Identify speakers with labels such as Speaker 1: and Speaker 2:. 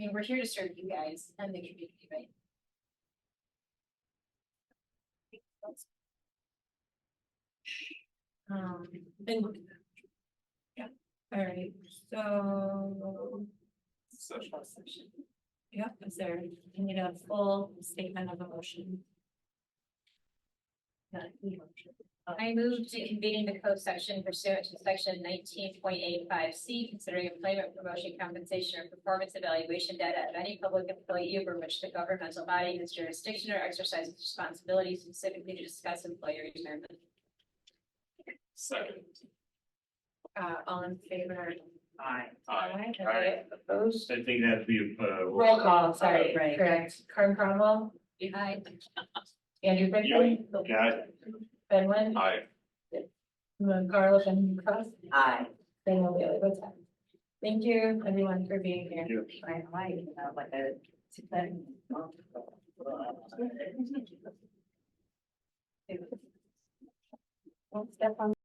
Speaker 1: mean, we're here to serve you guys and the community, right? Um, then. we- Yeah, all right, so. Social session. Yep, is there, you need a full statement of emotion?
Speaker 2: I move to convene the closed section pursuant to section nineteen point eight five C, considering employment promotion compensation or performance evaluation data of any public employee over which the governmental body has jurisdiction or exercises responsibility specifically to discuss employer retirement.
Speaker 3: Second.
Speaker 1: Uh, all in favor?
Speaker 3: Aye.
Speaker 1: Aye.
Speaker 3: Aye.
Speaker 1: Opposed?
Speaker 3: I think that'd be a. uh,
Speaker 1: Roll call, sorry,
Speaker 4: Right.
Speaker 1: correct. Karen Cromwell,
Speaker 2: Aye.
Speaker 1: Andrew Brinkley.
Speaker 3: Yeah.
Speaker 1: Ben Lynn,
Speaker 3: Aye.
Speaker 1: Moon Carlos and Cross,
Speaker 4: Aye.
Speaker 1: then we'll be able to go time. Thank you, everyone, for being here.
Speaker 3: You.
Speaker 4: I like, uh, like a.
Speaker 1: One step on